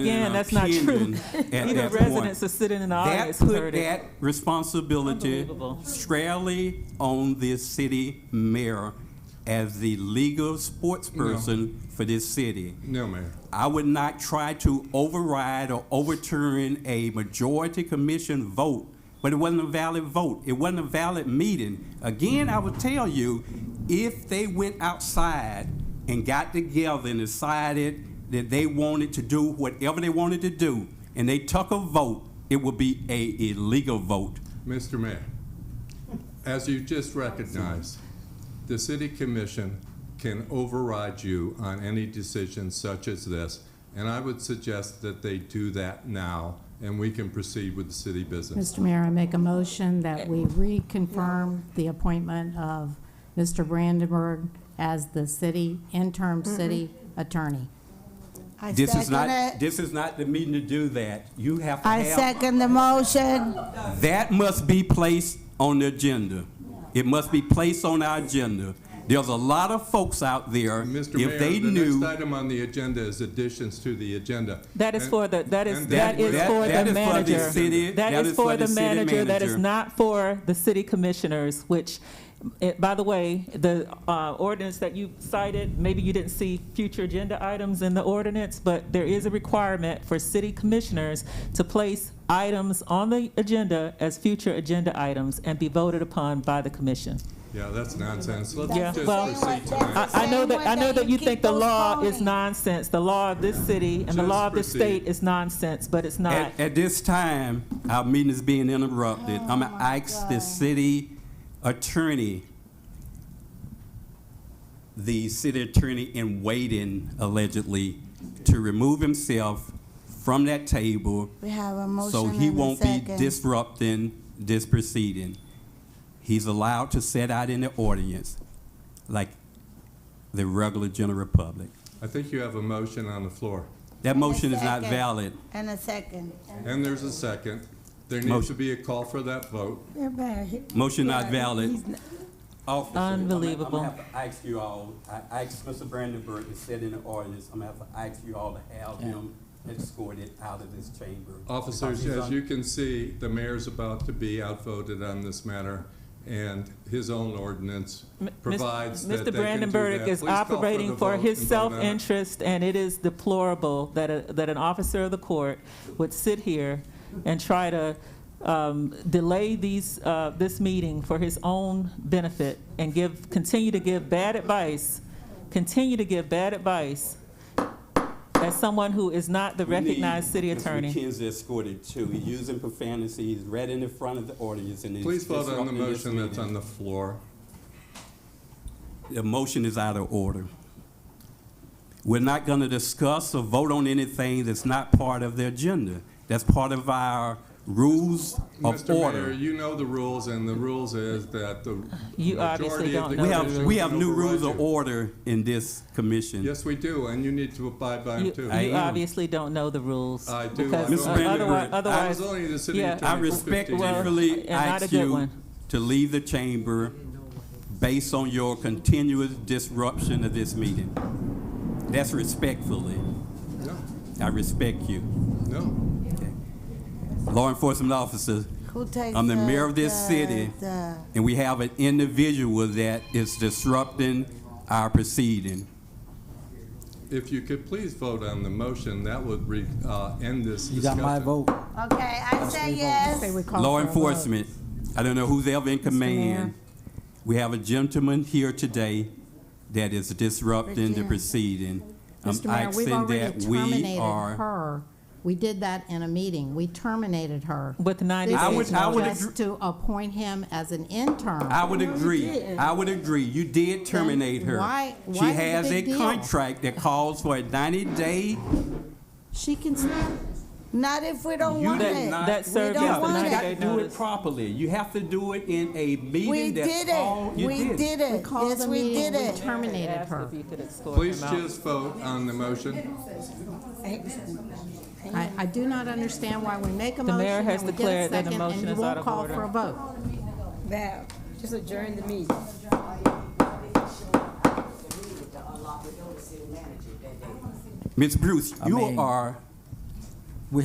Again, that's not true. Even residents are sitting in the That audience and put heard it. that responsibility Unbelievable. squarely on the city mayor as the legal sports person for this city. No, Mayor. I would not try to override or overturn a majority commission vote, but it wasn't a valid vote. It wasn't a valid meeting. Again, I would tell you, if they went outside and got together and decided that they wanted to do whatever they wanted to do, and they took a vote, it would be a illegal vote. Mr. Mayor, as you just recognized, the city commission can override you on any decision such as this, and I would suggest that they do that now, and we can proceed with the city business. Mr. Mayor, I make a motion that we reconfirm the appointment of Mr. Brandenburg as the city, interim city attorney. I This is second not, it. this is not the meeting to do that. You have to I have second the motion. That must be placed on the agenda. It must be placed on our agenda. There's a lot of folks out there, Mr. Mayor, if they the next knew. item on the agenda is additions to the agenda. That is And- for the, that is, and that is that- for that the is for the city- manager. that That is is for the for the city manager, that is manager. not for the city commissioners, which, eh, by the way, the uh, ordinance that you cited, maybe you didn't see future agenda items in the ordinance, but there is a requirement for city commissioners to place items on the agenda as future agenda items and be voted upon by the commission. Yeah, that's nonsense. Let's Yeah, just well, proceed tonight. I, I know Same that, I way know that that you you think keep the law is postponing. nonsense. The law of this city and the Just law of this proceed. state is nonsense, but it's not. At, at this time, our meeting is being interrupted. I'm gonna ask the city attorney, the city attorney in waiting allegedly, to remove himself from that table We have a So motion he and a won't be second. disrupting this proceeding. He's allowed to sit out in the audience like the regular general public. I think you have a motion on the floor. That motion is not second. valid. And a second. And there's a second. There needs to Motion. be a call for that vote. Motion not valid. Officer, I'm gonna- Unbelievable. I'm gonna have to ask you all, I asked Mr. Brandenburg to sit in the audience. I'm gonna have to ask you all to have him escorted out of this chamber. Officers, Because he's as un- you can see, the mayor's about to be outvoted on this matter, and his own ordinance M- Mis- provides that they Mr. can do Brandenburg that. is Please call the operating for vote his and vote on it. self-interest, and it is deplorable that, a- that an officer of the court would sit here and try to um, delay these, uh, this meeting for his own benefit and give, continue to give bad advice, continue to give bad advice as someone who is not the We need recognized city Mr. attorney. McKenzie escorted too. He's using profanity. He's right in the front of the audience and he's Please vote on the disrupting this motion that's meeting. on the floor. The motion is out of order. We're not going to discuss or vote on anything that's not part of the agenda. That's part of our rules of Mr. Mayor, order. you know the rules, and the rules is that the You obviously majority of don't the know We the have, commission we can have new override rules of you. order in this commission. Yes, we do, and you need to abide by You them, you too. I am. obviously don't know the rules. I do. because Mr. o- Brandenburg, I was otherwise- I Otherwise, was only the city yeah. I attorney for 15 years. respectfully and not a ask good you one. to leave the chamber based on your continuous disruption of this meeting. That's respectfully. No, I respect you. no. Law enforcement officers, Who takes I'm the mayor of this city. the- and we have an individual that is disrupting our proceeding. If you could please vote on the motion, that would re- uh, end this discussion. You got my vote. Okay, I say yes. Say we call Law for a vote. enforcement, I don't know who's ever in command. We have a gentleman here today that is disrupting the Virginia. proceeding. I'm Mr. Mayor, we've asking already um, that we terminated are- her. We did that in a meeting. We terminated her. With 90 This I days would- is I would just agree- To appoint him as an intern. I would agree, I would agree, you did terminate her. why- why She is it a has a big deal? contract that calls for a ninety-day She can, Not if we don't You want did it. not. That We served don't as the want 90 it. day Do it notice. properly, you have to do it in a We meeting, did that's all it. you We did we it. called Yes, the we meeting, did we it. terminated Ask her. if you could escort Please him out. just vote on the motion. I, I do not understand why we make a The motion mayor has and we get a declared that the second motion and you is out won't of call order. for a vote. Val, just adjourn the meeting. Ms. Bruce, you mean- are